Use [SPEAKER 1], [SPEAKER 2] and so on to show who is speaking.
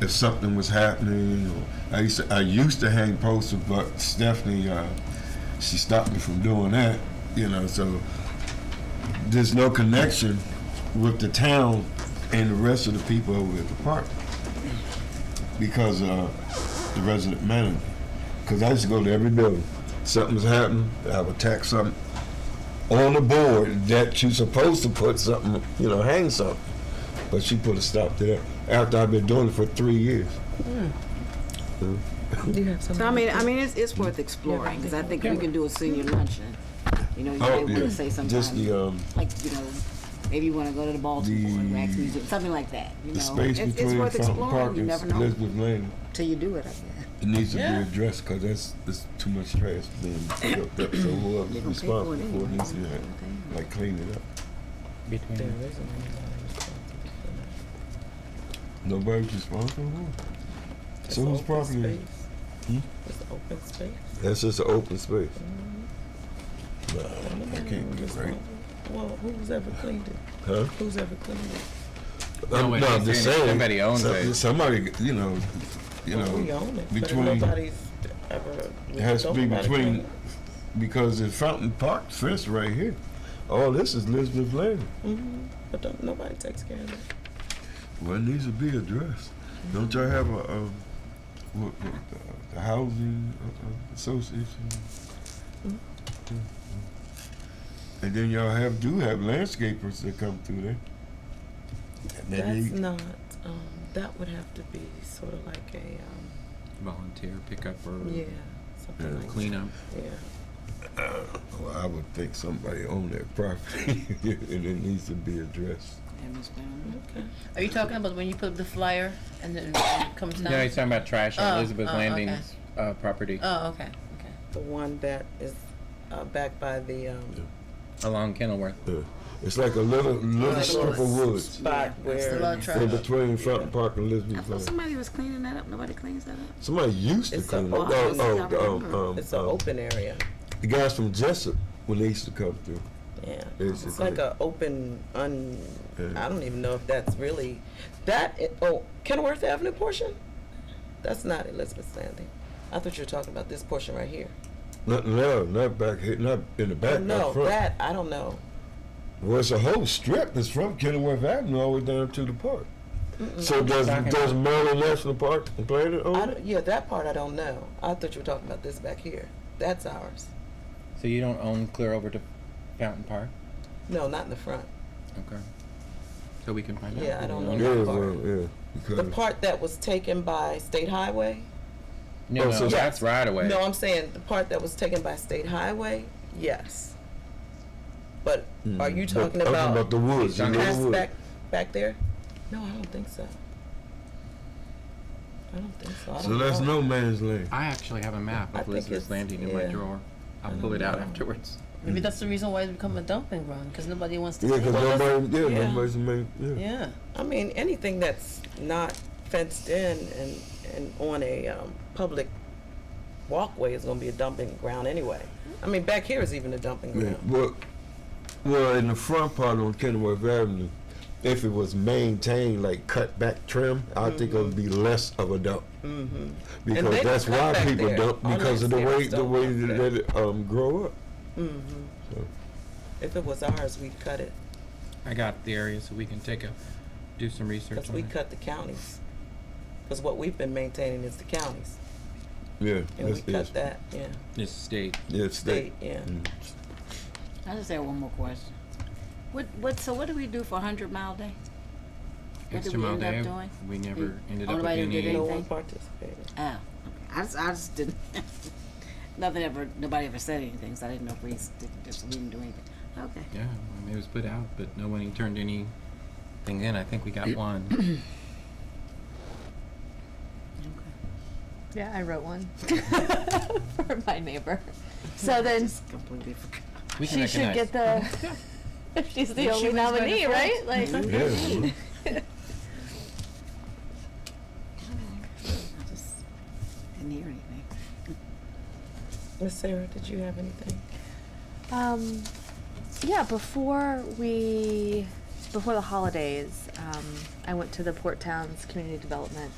[SPEAKER 1] if something was happening. Or I used to, I used to hang posters, but Stephanie, uh, she stopped me from doing that. You know, so there's no connection with the town and the rest of the people over at the park because uh, the resident manager. Because I used to go to every building. Something was happening, I would tack something on the board that you're supposed to put something, you know, hang something. But she put a stop to that after I've been doing it for three years.
[SPEAKER 2] You have some.
[SPEAKER 3] So I mean, I mean, it's, it's worth exploring, because I think we can do a senior luncheon. You know, you
[SPEAKER 1] Oh,
[SPEAKER 3] might want
[SPEAKER 1] yeah.
[SPEAKER 3] to say
[SPEAKER 1] Just
[SPEAKER 3] something,
[SPEAKER 1] the, um,
[SPEAKER 3] like, you know, maybe you want to go to the Baltimore and Wax
[SPEAKER 1] the-
[SPEAKER 3] Museum, something like that, you
[SPEAKER 1] the
[SPEAKER 3] know?
[SPEAKER 1] space
[SPEAKER 3] It's-
[SPEAKER 1] between
[SPEAKER 3] It's worth
[SPEAKER 1] Fountain Park
[SPEAKER 3] exploring, you
[SPEAKER 1] and
[SPEAKER 3] never know,
[SPEAKER 1] Elizabeth Lane,
[SPEAKER 3] till you do it, I guess.
[SPEAKER 1] it needs to
[SPEAKER 2] Yeah.
[SPEAKER 1] be addressed because that's, that's too much trash being built up. So
[SPEAKER 3] They're
[SPEAKER 1] whoever's
[SPEAKER 3] gonna pay for it
[SPEAKER 1] responsible for it
[SPEAKER 3] anyway.
[SPEAKER 1] needs to, like,
[SPEAKER 3] Okay.
[SPEAKER 1] like clean it up.
[SPEAKER 2] There
[SPEAKER 4] between
[SPEAKER 2] isn't
[SPEAKER 1] Nobody's responsible for it.
[SPEAKER 2] any.
[SPEAKER 1] So whose
[SPEAKER 2] It's open
[SPEAKER 1] property Hmm? is it?
[SPEAKER 2] space. It's open space.
[SPEAKER 1] That's just an open space. Nah, I can't be right.
[SPEAKER 2] Well, who's ever cleaned it?
[SPEAKER 1] Huh?
[SPEAKER 2] Who's ever cleaned it?
[SPEAKER 4] No,
[SPEAKER 1] Um,
[SPEAKER 4] but
[SPEAKER 1] no,
[SPEAKER 4] they
[SPEAKER 1] I'm just
[SPEAKER 4] saying
[SPEAKER 1] saying.
[SPEAKER 4] somebody owns
[SPEAKER 1] some-
[SPEAKER 4] it.
[SPEAKER 1] Somebody, you know, you
[SPEAKER 2] Well, We
[SPEAKER 1] know,
[SPEAKER 2] own it, but
[SPEAKER 1] between-
[SPEAKER 2] nobody's ever.
[SPEAKER 1] it has to be
[SPEAKER 2] nobody
[SPEAKER 1] between,
[SPEAKER 2] cleaned it.
[SPEAKER 1] because the Fountain Park fence right here, all this is Elizabeth Lane.
[SPEAKER 2] Mhm, But don't, nobody takes care of it.
[SPEAKER 1] Well, it needs to be addressed. Don't y'all have a, um, what, what, uh, the housing uh, uh, association? Mm-hmm. And then y'all have, do have landscapers that come through there. And then
[SPEAKER 2] That's
[SPEAKER 1] they-
[SPEAKER 2] not, um, that would have to be sort of like a, um,
[SPEAKER 4] volunteer pickup or
[SPEAKER 2] yeah, something
[SPEAKER 1] Yeah,
[SPEAKER 2] like. that.
[SPEAKER 4] cleanup.
[SPEAKER 2] Yeah.
[SPEAKER 1] Well, Oh, I would think somebody owned that property and it needs to be addressed.
[SPEAKER 3] And Miss Brown,
[SPEAKER 2] Okay.
[SPEAKER 5] Are you talking about when you put up the flyer and then it comes down?
[SPEAKER 4] No, he's talking about trash on
[SPEAKER 5] Oh,
[SPEAKER 4] Elizabeth
[SPEAKER 5] oh,
[SPEAKER 4] Landing's uh, property
[SPEAKER 5] Oh, okay, okay.
[SPEAKER 2] The one that is, uh, back by the, um,
[SPEAKER 4] along Kenilworth.
[SPEAKER 1] Yeah. Uh, It's like a little little
[SPEAKER 2] Right.
[SPEAKER 1] strip of woods
[SPEAKER 2] spot
[SPEAKER 5] It's a
[SPEAKER 2] where.
[SPEAKER 5] lot of
[SPEAKER 1] in
[SPEAKER 5] trash.
[SPEAKER 1] between Fountain Park and
[SPEAKER 3] I
[SPEAKER 1] Elizabeth
[SPEAKER 3] thought
[SPEAKER 1] Lane.
[SPEAKER 3] somebody was cleaning that up, nobody cleans that up.
[SPEAKER 1] Somebody used to
[SPEAKER 2] It's
[SPEAKER 1] come.
[SPEAKER 2] a-
[SPEAKER 1] up. Oh, oh,
[SPEAKER 3] I
[SPEAKER 1] um,
[SPEAKER 3] remember.
[SPEAKER 1] um,
[SPEAKER 2] It's an
[SPEAKER 1] um,
[SPEAKER 2] open area.
[SPEAKER 1] The guys from Jessup when they used to come through.
[SPEAKER 2] Yeah.
[SPEAKER 1] It's
[SPEAKER 2] It's
[SPEAKER 1] a
[SPEAKER 2] like
[SPEAKER 1] great-
[SPEAKER 2] a open, un,
[SPEAKER 1] Yeah.
[SPEAKER 2] I don't even know if that's really, that, i- oh, Kenworth Avenue portion? That's not Elizabeth Landing. I thought you were talking about this portion right here. Oh,
[SPEAKER 1] Not no, not back here, not in the back,
[SPEAKER 2] No,
[SPEAKER 1] not front.
[SPEAKER 2] that, I don't know.
[SPEAKER 1] Well, it's a whole strip. It's from Kenilworth Avenue all the way down to the park. So does
[SPEAKER 4] Talking
[SPEAKER 1] does
[SPEAKER 4] about-
[SPEAKER 1] Maryland National Park and Planet
[SPEAKER 2] I
[SPEAKER 1] own it?
[SPEAKER 2] don't, yeah, that part I don't know. I thought you were talking about this back here. That's ours.
[SPEAKER 4] So you don't own clear over to Fountain Park?
[SPEAKER 2] No, not in the front.
[SPEAKER 4] Okay. So we can find out.
[SPEAKER 2] Yeah,
[SPEAKER 4] who
[SPEAKER 2] I don't
[SPEAKER 4] we
[SPEAKER 2] know.
[SPEAKER 4] own.
[SPEAKER 1] Yeah,
[SPEAKER 2] that
[SPEAKER 1] well,
[SPEAKER 2] part.
[SPEAKER 1] yeah.
[SPEAKER 2] The
[SPEAKER 1] Because
[SPEAKER 2] part that was taken by State Highway?
[SPEAKER 4] No,
[SPEAKER 1] Oh,
[SPEAKER 4] no,
[SPEAKER 1] so
[SPEAKER 4] that's right away.
[SPEAKER 2] No, I'm saying the part that was taken by State Highway, yes. But are
[SPEAKER 1] Hmm.
[SPEAKER 2] you
[SPEAKER 1] But
[SPEAKER 2] talking
[SPEAKER 1] I'm
[SPEAKER 2] about?
[SPEAKER 1] the woods? You know
[SPEAKER 4] Talking about-
[SPEAKER 1] the
[SPEAKER 2] Past
[SPEAKER 1] woods.
[SPEAKER 2] back, back there? No, I don't think so. I don't think so. I
[SPEAKER 1] So
[SPEAKER 2] don't
[SPEAKER 1] that's
[SPEAKER 2] know.
[SPEAKER 1] no man's land.
[SPEAKER 4] I actually have a map
[SPEAKER 2] I
[SPEAKER 4] of
[SPEAKER 2] think
[SPEAKER 4] Elizabeth
[SPEAKER 2] it's-
[SPEAKER 4] Landing in my
[SPEAKER 2] yeah.
[SPEAKER 4] drawer. I'll
[SPEAKER 2] I
[SPEAKER 4] pull it
[SPEAKER 2] don't
[SPEAKER 4] out
[SPEAKER 2] know.
[SPEAKER 4] afterwards.
[SPEAKER 5] Maybe that's the reason why it's become a dumping ground, because nobody wants to.
[SPEAKER 1] Yeah, because
[SPEAKER 5] Well, that's-
[SPEAKER 1] nobody, yeah,
[SPEAKER 2] yeah.
[SPEAKER 1] nobody's made, yeah.
[SPEAKER 5] Yeah,
[SPEAKER 2] I mean, anything that's not fenced in and, and on a, um, public walkway is gonna be a dumping ground anyway. I mean, back here is even a dumping
[SPEAKER 1] Yeah,
[SPEAKER 2] ground.
[SPEAKER 1] well, well, in the front part on Kenilworth Avenue, if it was maintained, like cut back trim, I think it would be less of a dump.
[SPEAKER 2] Mm-hmm. they
[SPEAKER 1] Because
[SPEAKER 2] don't
[SPEAKER 1] that's
[SPEAKER 2] cut
[SPEAKER 1] why
[SPEAKER 2] back
[SPEAKER 1] people
[SPEAKER 2] there.
[SPEAKER 1] dump,
[SPEAKER 2] Our
[SPEAKER 1] because of the way,
[SPEAKER 2] landscapers
[SPEAKER 1] the
[SPEAKER 2] don't
[SPEAKER 1] way
[SPEAKER 2] cut
[SPEAKER 1] that
[SPEAKER 2] back.
[SPEAKER 1] that it, um, grow up.
[SPEAKER 2] Mm-hmm.
[SPEAKER 1] So-
[SPEAKER 2] If it was ours, we'd cut it,
[SPEAKER 4] I got the area so we can take a, do some research
[SPEAKER 2] cause
[SPEAKER 4] on
[SPEAKER 2] we
[SPEAKER 4] it.
[SPEAKER 2] cut the counties. Cause what we've been maintaining is the counties,
[SPEAKER 1] Yeah,
[SPEAKER 2] and we
[SPEAKER 1] that's,
[SPEAKER 2] cut
[SPEAKER 1] it's,
[SPEAKER 2] that, yeah,
[SPEAKER 4] This state.
[SPEAKER 1] yeah,
[SPEAKER 2] state,
[SPEAKER 1] state.
[SPEAKER 2] yeah.
[SPEAKER 1] Mm.
[SPEAKER 3] I just have one more question. What, what, so what do we do for Hundred Mile Day? What did
[SPEAKER 4] Extra
[SPEAKER 3] we
[SPEAKER 4] mile
[SPEAKER 3] end up
[SPEAKER 4] day,
[SPEAKER 3] doing?
[SPEAKER 4] we never ended
[SPEAKER 3] Oh,
[SPEAKER 4] up with
[SPEAKER 3] nobody did
[SPEAKER 4] any.
[SPEAKER 2] No
[SPEAKER 3] anything?
[SPEAKER 2] one participated.
[SPEAKER 3] Oh, okay. I just, I just didn't, nothing ever, nobody ever said anything, so I didn't know if we s- didn't, just, we didn't do anything. Okay.
[SPEAKER 4] Yeah, I mean, it was put out, but no one turned anything in. I think we got one.
[SPEAKER 6] Yeah, I wrote one for my neighbor. So then
[SPEAKER 3] Just completely forgot.
[SPEAKER 4] We can
[SPEAKER 6] she should
[SPEAKER 4] recognize.
[SPEAKER 6] get the, if she's the
[SPEAKER 5] She
[SPEAKER 6] only
[SPEAKER 5] wins by
[SPEAKER 6] nominee,
[SPEAKER 5] default.
[SPEAKER 6] right? Like,
[SPEAKER 1] Yeah.
[SPEAKER 3] I just didn't hear anything.
[SPEAKER 2] Miss Sarah, did you have anything?
[SPEAKER 6] um, yeah, before we, before the holidays, um, I went to the Port Towns Community Development